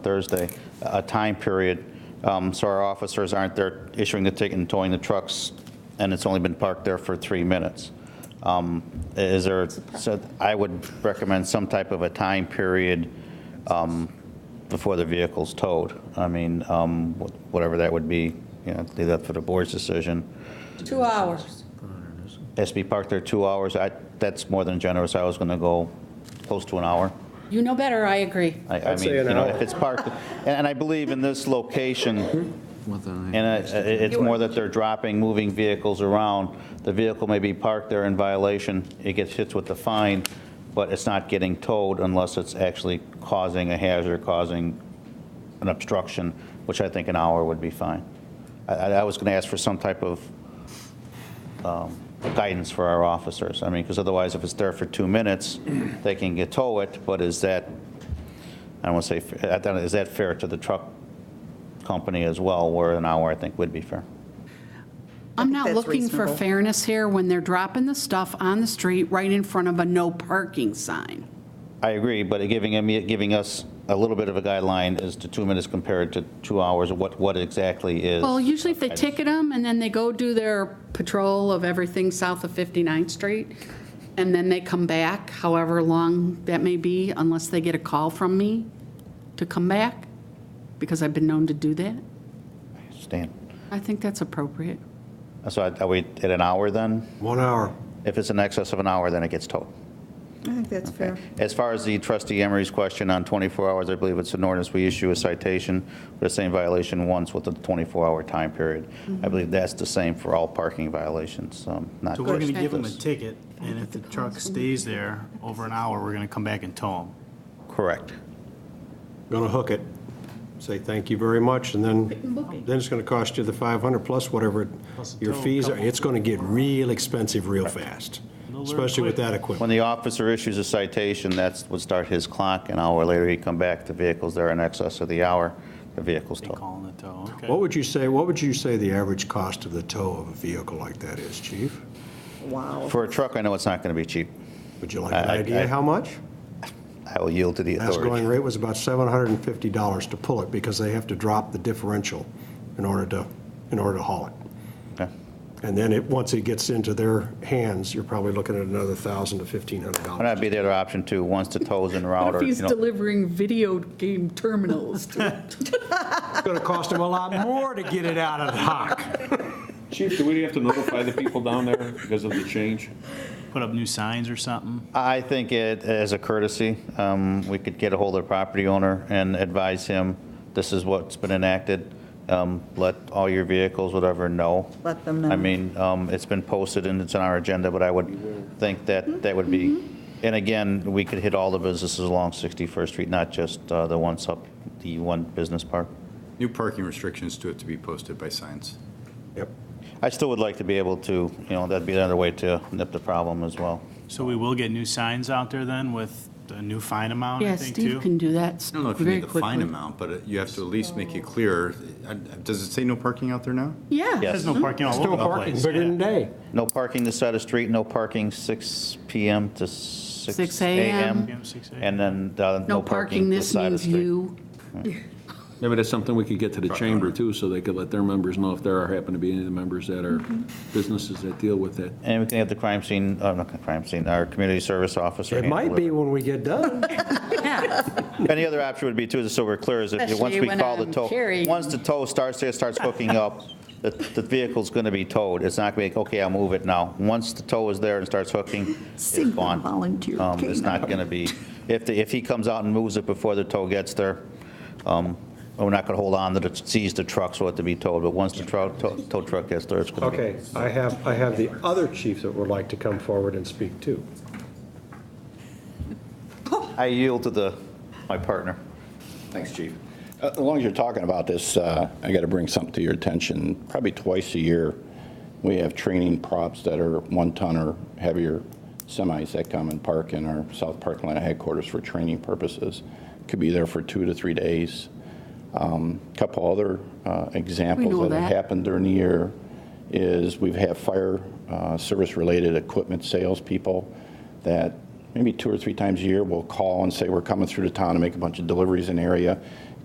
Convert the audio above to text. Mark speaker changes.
Speaker 1: Thursday, a time period, um, so our officers aren't there issuing the ticket and towing the trucks, and it's only been parked there for three minutes. Um, Is there, so I would recommend some type of a time period um, before the vehicle's towed. I mean, um, wh- whatever that would be, you know, leave that for the board's decision.
Speaker 2: Two hours.
Speaker 1: Has to be parked there two hours, I, that's more than generous, I was going to go close to an hour.
Speaker 2: You know better, I agree.
Speaker 1: I- I
Speaker 3: I'd
Speaker 1: mean,
Speaker 3: say
Speaker 1: you
Speaker 3: an
Speaker 1: know,
Speaker 3: hour.
Speaker 1: if it's parked, and- and I believe in this location, and
Speaker 4: And
Speaker 1: I- i- it's more that they're dropping, moving vehicles around, the vehicle may be parked there in violation, it gets hit with the fine, but it's not getting towed unless it's actually causing a hazard, causing an obstruction, which I think an hour would be fine. I- I I was going to ask for some type of um, guidance for our officers. I mean, because otherwise, if it's there for two minutes, they can get tow it, but is that, I don't want to say, I don't- is that fair to the truck company as well, where an hour, I think, would be fair?
Speaker 2: I'm
Speaker 5: think
Speaker 2: not
Speaker 5: that's
Speaker 2: looking for
Speaker 5: reasonable.
Speaker 2: fairness here when they're dropping the stuff on the street right in front of a no parking sign.
Speaker 1: I agree, but giving, him- giving us a little bit of a guideline as to two minutes compared to two hours, what, what exactly is.
Speaker 2: Well, usually if they ticket them and then they go do their patrol of everything south of 59th Street, and then they come back, however long that may be, unless they get a call from me to come back, because I've been known to do that,
Speaker 1: Stan,
Speaker 2: I think that's appropriate.
Speaker 1: so are we at an hour then?
Speaker 3: One hour.
Speaker 1: If it's in excess of an hour, then it gets towed.
Speaker 5: I think that's fair.
Speaker 1: As far as the trustee Emery's question on 24 hours, I believe it's an ordinance, we issue a citation for the same violation once with a 24-hour time period. I believe that's the same for all parking violations, um, not
Speaker 6: So we're
Speaker 1: just
Speaker 6: gonna give them a
Speaker 1: this.
Speaker 6: ticket, and if the truck stays there over an hour, we're gonna come back and tow them.
Speaker 1: Correct.
Speaker 3: Gonna hook it. Say thank you very much, and then,
Speaker 2: book it.
Speaker 3: then it's gonna cost you the 500 plus whatever it-
Speaker 6: Plus the
Speaker 3: your
Speaker 6: tow,
Speaker 3: fees are.
Speaker 6: couple.
Speaker 3: It's gonna get real expensive real fast,
Speaker 6: They'll learn
Speaker 3: especially with
Speaker 6: quick.
Speaker 3: that equipment.
Speaker 1: When the officer issues a citation, that's would start his clock, an hour later he'd come back, the vehicle's there in excess of the hour, the vehicle's
Speaker 6: They
Speaker 1: towed.
Speaker 6: call them the tow, okay.
Speaker 3: What would you say, what would you say the average cost of the tow of a vehicle like that is, chief?
Speaker 5: Wow.
Speaker 1: For a truck, I know it's not going to be cheap.
Speaker 3: Would you like
Speaker 1: I-
Speaker 3: an
Speaker 1: I- I-
Speaker 3: idea how much?
Speaker 1: I will yield to the
Speaker 3: Last going
Speaker 1: authority.
Speaker 3: rate was about $750 to pull it because they have to drop the differential in order to, in order to haul it.
Speaker 1: Okay.
Speaker 3: And then it, once it gets into their hands, you're probably looking at another 1000 to $1,500.
Speaker 1: And that'd be the other option too, once the tow's in route or, you know.
Speaker 2: delivering video game terminals
Speaker 3: It's going to cost them a lot more to get it out of the hock.
Speaker 7: Chief, do we have to notify the people down there because of the change?
Speaker 6: Put up new signs or something?
Speaker 1: I think it, as a courtesy, um, we could get a hold of the property owner and advise him, this is what's been enacted. Um, Let all your vehicles, whatever, know.
Speaker 5: Let them know.
Speaker 1: I mean, um, it's been posted and it's on our agenda, but I would think
Speaker 2: Mm-hmm.
Speaker 1: that that would be, and again, we could hit all the businesses along 61st Street, not just uh, the ones up, the one business park.
Speaker 4: New parking restrictions to it to be posted by signs.
Speaker 3: Yep.
Speaker 1: I still would like to be able to, you know, that'd be another way to nip the problem as well.
Speaker 6: So we will get new signs out there then with the new fine amount, I
Speaker 2: Yeah,
Speaker 6: think,
Speaker 2: Steve
Speaker 6: too?
Speaker 2: can do that
Speaker 4: I don't know if you
Speaker 2: very
Speaker 4: need the fine
Speaker 2: quickly.
Speaker 4: amount, but it- you have to at least make it clear. I- I- Does it say no parking out there now?
Speaker 2: Yeah,
Speaker 6: There's no parking all over
Speaker 3: No
Speaker 6: the
Speaker 3: parking,
Speaker 6: place.
Speaker 3: bigger
Speaker 6: yeah.
Speaker 3: than day.
Speaker 1: No parking this side of the street, no parking 6 PM to 6
Speaker 2: 6 a.m..
Speaker 1: AM.
Speaker 6: Yeah, 6 a.m..
Speaker 1: And then uh,
Speaker 2: no parking,
Speaker 1: this
Speaker 2: this
Speaker 1: side of
Speaker 2: means
Speaker 1: the street.
Speaker 2: you.
Speaker 8: Maybe that's something we could get to the chamber too, so they could let their members know if there are, happen to be any of the members that are businesses that deal with that.
Speaker 1: And we can have the crime scene, uh, not the crime scene, our community service officer.
Speaker 3: It
Speaker 1: handle
Speaker 3: might be when we get done.
Speaker 1: Any other option would be too, is so we're clear, is if, once
Speaker 2: Especially
Speaker 1: we
Speaker 2: when
Speaker 1: call the
Speaker 2: I'm
Speaker 1: tow,
Speaker 2: carrying-
Speaker 1: once the tow starts there, starts hooking up, the, the vehicle's going to be towed. It's not going to be, okay, I'll move it now. Once the tow is there and starts hooking, it's
Speaker 5: Single
Speaker 1: gone.
Speaker 5: volunteer
Speaker 1: Um, It's not
Speaker 5: canine.
Speaker 1: going to be, if, the- if he comes out and moves it before the tow gets there, um, we're not going to hold on to, the- seize the truck so it to be towed, but once the truck, tow tow truck gets there, it's going to be.
Speaker 3: Okay, I have, I have the other chief that would like to come forward and speak too.
Speaker 1: I yield to the, my partner.
Speaker 9: Thanks, Chief. Uh, As long as you're talking about this, uh, I got to bring something to your attention. Probably twice a year, we have training props that are one-ton or heavier semis that come and park in our South Park Atlanta headquarters for training purposes. Could be there for two to three days. A Couple other uh,
Speaker 2: know
Speaker 9: examples that have
Speaker 2: that.
Speaker 9: happened during the year is we've had fire uh, service-related equipment salespeople that maybe two or three times a year will call and say, we're coming through the town to make a bunch of deliveries in the area.